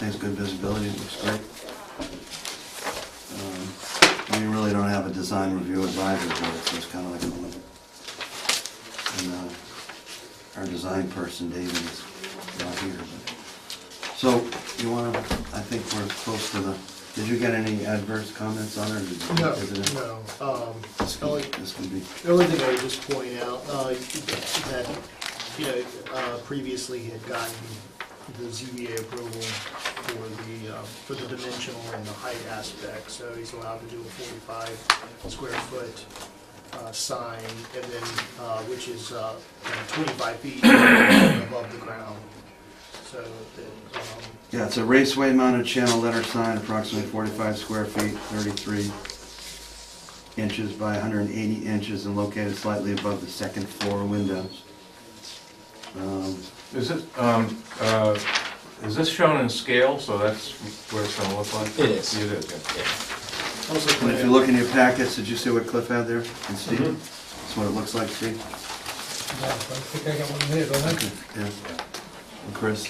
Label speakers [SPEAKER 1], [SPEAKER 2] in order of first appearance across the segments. [SPEAKER 1] Has good visibility, it looks great. Um, We really don't have a design review advisory board, so it's kind of like a little. And uh, our design person, David, is not here, but. So, you wanna, I think we're close to the, did you get any adverse comments on it? or did you-
[SPEAKER 2] No,
[SPEAKER 1] is it-
[SPEAKER 2] no, um,
[SPEAKER 1] This
[SPEAKER 2] the only,
[SPEAKER 1] could- this could be,
[SPEAKER 2] the only thing I would just point out, uh, that, you know, uh, previously he had gotten the ZBA approval for the, uh, for the dimensional and the height aspect, so he's allowed to do a forty-five square foot, uh, sign, and then, uh, which is, uh, you know, twenty-five feet above the ground, so that, um,
[SPEAKER 1] yeah, it's a raceway mounted channel letter sign, approximately forty-five square feet, thirty-three inches by hundred and eighty inches and located slightly above the second floor windows. Um,
[SPEAKER 3] Is it, um, uh, is this shown in scale, so that's what it's gonna look like?
[SPEAKER 4] It is.
[SPEAKER 3] It is, yeah.
[SPEAKER 2] also.
[SPEAKER 1] And if you look in your packets, did you see what Cliff had there and Steve? That's what it looks like, Steve?
[SPEAKER 5] Yeah, I think I got one there, don't I?
[SPEAKER 1] Yeah. And Chris?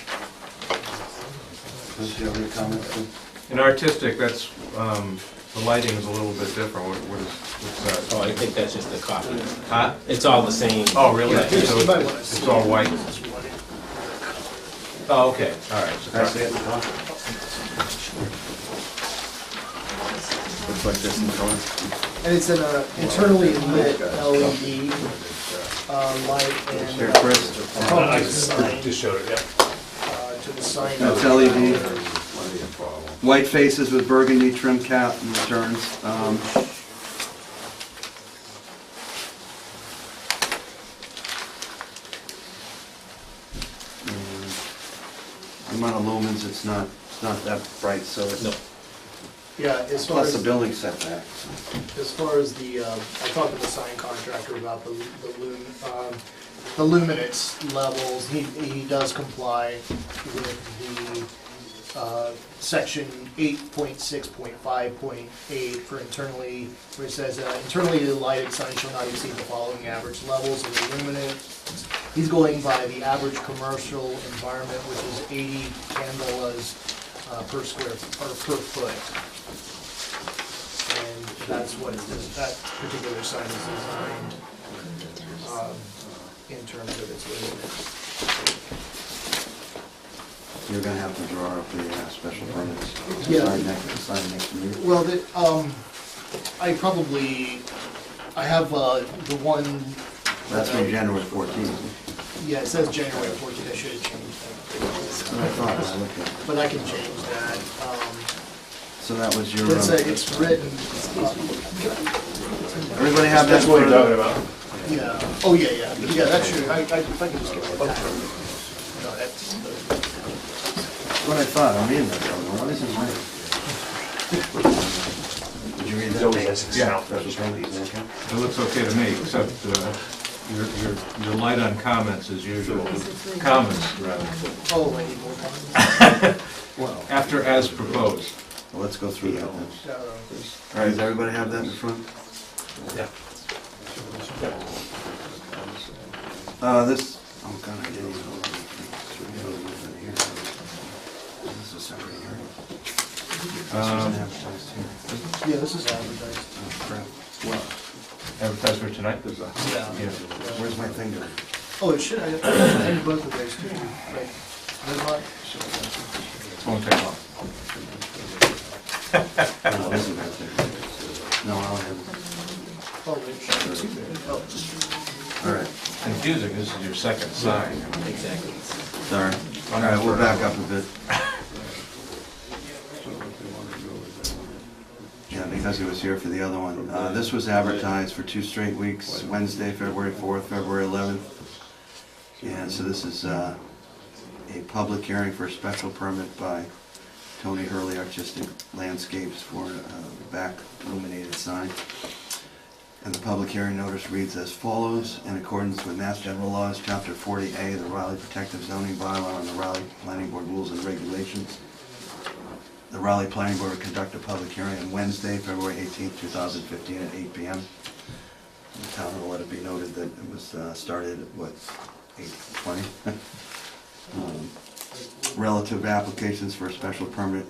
[SPEAKER 1] Chris, you have any comments? Cliff?
[SPEAKER 3] In artistic, that's, um, the lighting is a little bit different, what what is, what's
[SPEAKER 4] Oh,
[SPEAKER 3] that?
[SPEAKER 4] I think that's just the copy.
[SPEAKER 3] Huh?
[SPEAKER 4] It's all the same.
[SPEAKER 3] Oh, really?
[SPEAKER 4] Yeah.
[SPEAKER 3] So
[SPEAKER 2] You might
[SPEAKER 3] it's-
[SPEAKER 2] wanna
[SPEAKER 3] It's all white?
[SPEAKER 2] see what it-
[SPEAKER 3] Oh, okay, all right. so
[SPEAKER 1] Can I say it in the car? Looks like this in color.
[SPEAKER 2] And it's an uh, internally lit LED uh, light
[SPEAKER 1] Here,
[SPEAKER 2] and uh,
[SPEAKER 1] Chris.
[SPEAKER 2] probably sign
[SPEAKER 6] Just showed it, yeah.
[SPEAKER 2] uh, to the sign.
[SPEAKER 1] That's LED. White faces with burgundy trim cap and returns. Um, The amount of lumens, it's not, it's not that bright, so
[SPEAKER 4] No,
[SPEAKER 1] it's,
[SPEAKER 2] Yeah, as far
[SPEAKER 1] plus
[SPEAKER 2] as,
[SPEAKER 1] the building setback.
[SPEAKER 2] as far as the, uh, I talked to the sign contractor about the the lum, um, the luminance levels. He, he does comply with the uh, section 8.6.5.8 for internally, where it says uh, internally lighted sign shall not exceed the following average levels of luminance, He's going by the average commercial environment, which is 80 candelas uh, per square, or per foot. And that's what this- that particular sign is designed um, in terms of its luminance.
[SPEAKER 1] You're gonna have to draw up the uh, special permits.
[SPEAKER 2] Yeah.
[SPEAKER 1] Sign next, sign next meeting.
[SPEAKER 2] Well, the, um, I probably, I have uh, the one.
[SPEAKER 1] That's from January 14th.
[SPEAKER 2] Yeah, it says January 14th, I should have changed that.
[SPEAKER 1] That's what I thought when I looked at it.
[SPEAKER 2] But I can change that. um,
[SPEAKER 1] So that was your.
[SPEAKER 2] It's,
[SPEAKER 1] uh,
[SPEAKER 2] a- it's written, uh,
[SPEAKER 1] Everybody have that?
[SPEAKER 6] That's what we're
[SPEAKER 1] photo?
[SPEAKER 6] talking about.
[SPEAKER 2] yeah, oh, yeah, yeah, yeah, that's true, I, I, if I could just get that. No, that's,
[SPEAKER 1] What I thought, I'm reading that, though, what is it mine? Did you read
[SPEAKER 6] It
[SPEAKER 1] that?
[SPEAKER 6] always has its
[SPEAKER 3] Yeah.
[SPEAKER 6] sound. That's what it is.
[SPEAKER 3] It looks okay to me, except uh, your, your, your light on comments as usual, comments rather,
[SPEAKER 2] oh, I need more comments.
[SPEAKER 1] Well,
[SPEAKER 3] after as proposed.
[SPEAKER 1] let's go through that then.
[SPEAKER 2] So,
[SPEAKER 1] All right, does everybody have that in front?
[SPEAKER 6] Yeah.
[SPEAKER 1] Uh, this, oh god, I didn't even. know. This is a separate hearing. This
[SPEAKER 3] Um,
[SPEAKER 1] wasn't advertised here.
[SPEAKER 2] Yeah, this is advertised.
[SPEAKER 1] Oh, crap. Well,
[SPEAKER 3] Advertised for tonight, there's a, yeah.
[SPEAKER 1] where's my finger?
[SPEAKER 2] Oh, it should, I, I need both of those too, right? There's one.
[SPEAKER 3] It won't take long.
[SPEAKER 1] No, Oh, this is right there. No, I'll have
[SPEAKER 2] Oh, there's two there. Oh,
[SPEAKER 1] it. All right.
[SPEAKER 3] Confusing, this is your second sign.
[SPEAKER 4] exactly.
[SPEAKER 1] Sorry. All right, we'll back up a bit. Yeah, because he was here for the other one. Uh, This was advertised for two straight weeks, Wednesday, February 4th, February 11th. And so this is uh, a public hearing for a special permit by Tony Hurley Artistic Landscapes for a back illuminated sign. And the public hearing notice reads as follows. In accordance with Mass General Laws, Chapter 40A, the Raleigh Protective Zoning Bylaw, and the Raleigh Planning Board Rules and Regulations, the Raleigh Planning Board will conduct a public hearing on Wednesday, February 18, 2015, at 8 p.m. The town will let it be noted that it was uh, started at, what, 8:20? Um, relative applications for a special permit